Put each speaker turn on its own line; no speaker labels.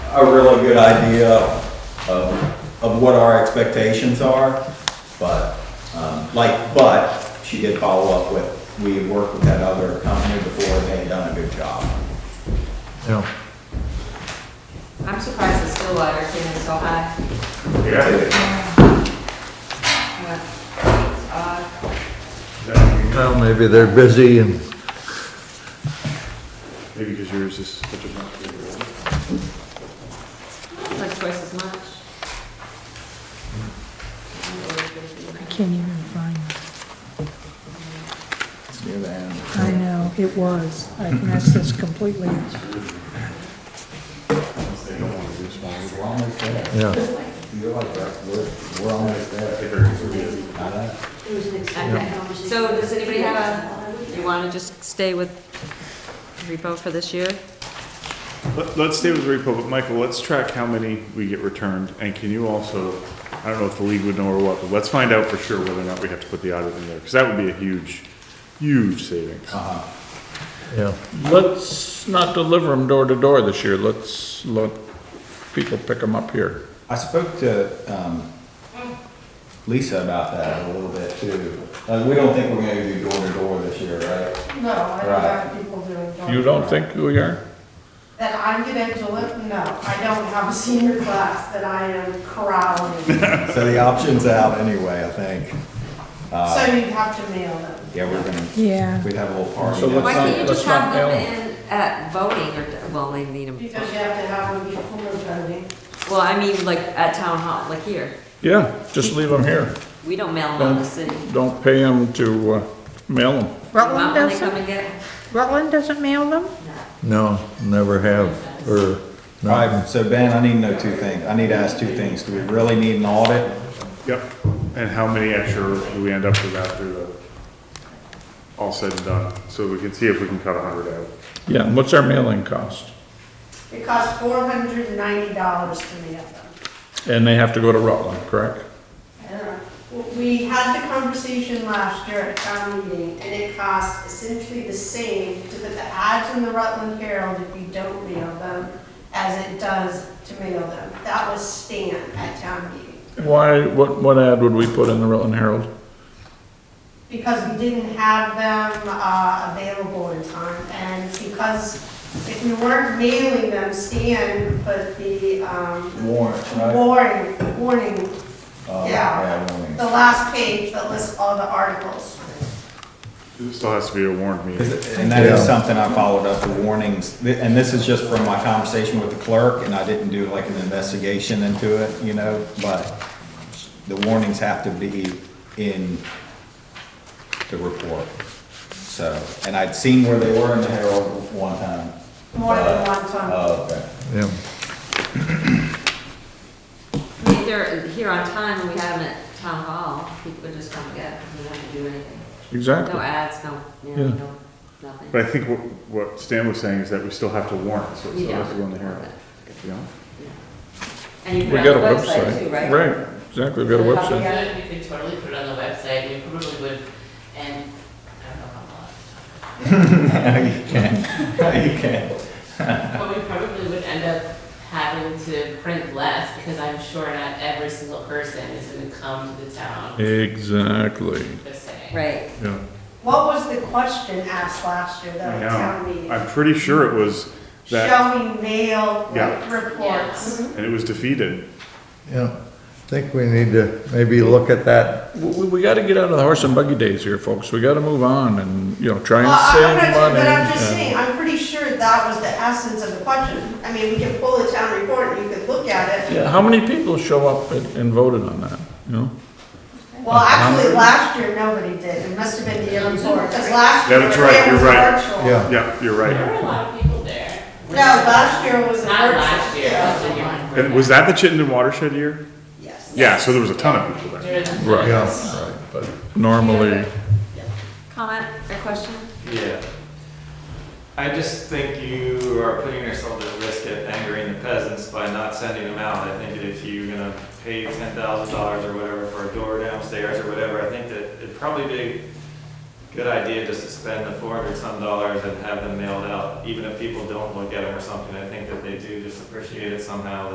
a really good idea of, of what our expectations are, but, um, like, but she did follow up with, we had worked with that other company before, they had done a good job.
Yeah.
I'm surprised the Stillwater came in so high.
Yeah.
Yeah. It's odd.
Well, maybe they're busy and,
Maybe because yours is such a much bigger one.
It's Like twice as much.
I can't even find it.
It's near the end.
I know, it was. I messed this completely.
They don't want to do small.
We're almost there.
yeah,
You're like, that. we're, we're almost there. Got it?
Okay. So does anybody have a, you want to just stay with repo for this year?
Let- Let's stay with repo, but Michael, let's track how many we get returned, and can you also, I don't know if the league would know or what, but let's find out for sure whether or not we have to put the audit in there, because that would be a huge, huge savings.
yeah.
Let's not deliver them door to door this year. Let's let people pick them up here.
I spoke to um, Lisa about that a little bit too. Uh, We don't think we're gonna do door to door this year, right?
No, I don't have people doing. door-
You don't think we are?
That I'm gonna do it? No, I don't have a senior class that I am corralling.
So the option's out anyway, I think.
Uh.
So you'd have to mail them.
Yeah, we're gonna,
Yeah.
we'd have a little party.
So
down
Why
let's-
can't you
not-
just
let's not
have them
mail
in at voting or, well, they need them.
Because you have to have them before voting.
Well, I mean, like at town hall, like here.
Yeah, just leave them here.
We don't mail them out the city.
Don't pay them to uh, mail them.
Want when
Rutland
they come
doesn't,
and get 'em?
Rutland doesn't mail them?
No, never have, or,
All right, so Ben, I need to know two things. I need to ask two things. Do we really need an audit?
Yep, and how many extra do we end up with after the, all said and done, so we can see if we can cut a hundred out.
Yeah, and what's our mailing cost?
It costs four hundred and ninety dollars to mail them.
And they have to go to Rutland, correct?
I don't know. W- We had the conversation last year at town meeting, and it costs essentially the same to put the ads in the Rutland Herald if you don't mail them as it does to mail them. That was Stan at town meeting.
Why, what, what ad would we put in the Rutland Herald?
because we didn't have them uh, available in time, and because if we weren't mailing them, Stan put the um,
Warrant, right?
warning, warning,
Uh,
yeah,
warning.
the last page that lists all the articles.
It still has to be a warrant meeting.
And that is something I followed up, the warnings, Th- and this is just from my conversation with the clerk, and I didn't do like an investigation into it, you know, but the warnings have to be in the report, so, and I'd seen where they were in the Herald one time.
More than one time.
Oh, okay.
yeah,
I mean, if they're here on time and we have them at town hall, people would just come and get them. We don't have to do anything.
Exactly.
No ads, no, you know,
Yeah.
no, nothing.
But I think what, what Stan was saying is that we still have to warrant, so it
You
still has
don't.
to go in the Herald, you know?
And you
We
put it
got a
on the website
website.
too, right?
Right, exactly, we got a website.
Yeah, you could totally put it on the website, we probably would, and I don't know how
You can, you can.
much. But we probably would end up having to print less, because I'm sure not every single person is gonna come to the town,
Exactly,
just saying.
Right.
yeah.
What was the question asked last year though
I
at town
know.
meeting?
I'm pretty sure it was that,
Shall we mail
Yeah.
reports?
and it was defeated.
yeah. I Think we need to maybe look at that,
We, we gotta get out of the horse and buggy days here, folks. We gotta move on and, you know, try
Well, I- I'm
and
not
save
sure,
money.
But I'm just
uh,
and-
saying, I'm pretty sure that was the essence of the question. I mean, we can pull the town report and you could look at it.
Yeah, how many people show up and and voted on that, you know?
Well, actually, last year, nobody did. It must have been the year before, because last year.
That's right,
it was
you're right.
virtual.
yeah,
Yeah, you're
There
right.
were a lot of people there.
No, last year was a
Not
virtual.
last year, that's the year.
Yeah.
before.
And was that the Chittenden watershed year?
Yes.
Yeah, so there was a ton of people there.
There was-
Right.
yeah.
Right, but normally,
Comment or question?
Yeah. I just think you are putting yourself at risk of angering the peasants by not sending them out. I think that if you're gonna pay ten thousand dollars or whatever for a door downstairs or whatever, I think that it'd probably be good idea just to spend the four hundred some dollars and have them mailed out, even if people don't look at them or something. I think that they do just appreciate it somehow,